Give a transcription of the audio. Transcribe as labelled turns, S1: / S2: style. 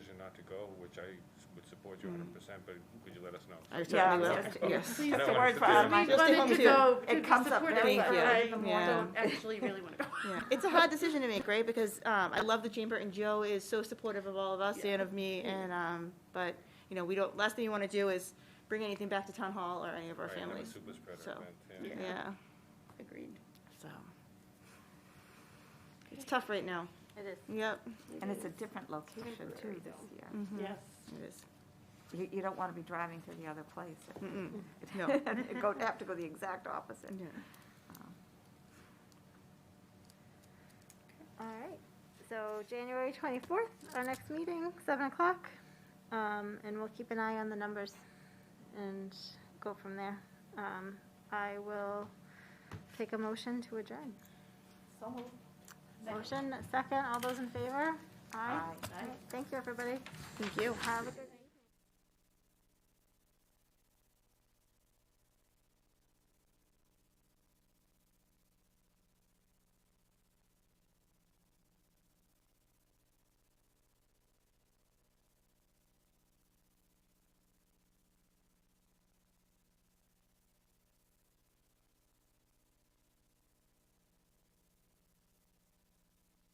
S1: not to go, which I s- would support you hundred percent, but could you let us know?
S2: I
S3: Yeah,
S2: certainly will.
S3: just- yes.
S1: I
S4: Mm. Please
S1: don't
S4: don't
S1: want
S4: worry
S1: to
S4: for
S1: do
S4: our
S1: it.
S4: mind.
S2: Just
S4: Just
S2: to
S4: wanted to
S2: compute.
S4: go
S3: It
S4: to
S3: comes up
S4: support it,
S3: very
S4: but
S3: quickly.
S4: I
S2: Yeah.
S4: don't actually really want to go.
S2: Yeah, it's a hard decision to make, right? Because um, I love the chamber, and Joe is so supportive of all of us and of me. And um, but you know, we don't. Last thing you want to do is bring anything back to town hall or any of our
S1: Right, another
S2: families.
S1: super spreader
S2: so,
S1: event, yeah.
S2: Yeah.
S4: Yeah. Agreed.
S2: So it's tough right now.
S4: It is.
S2: Yep.
S3: And it's a different location
S4: Temporary,
S3: too this
S4: though.
S3: year.
S2: Mhm.
S4: Yes.
S2: It is.
S3: You, you don't want to be driving to the other place.
S2: Mm-mm. No.
S3: Go, have to go the exact opposite. Um,
S2: Yeah.
S5: All right, so January 24th, our next meeting, 7 o'clock. Um, And we'll keep an eye on the numbers and go from there. Um, I will take a motion to adjourn. Motion, second, all those in favor? Aye.
S3: Aye.
S5: All right, Thank you, everybody.
S2: Thank you.
S5: Have a good night.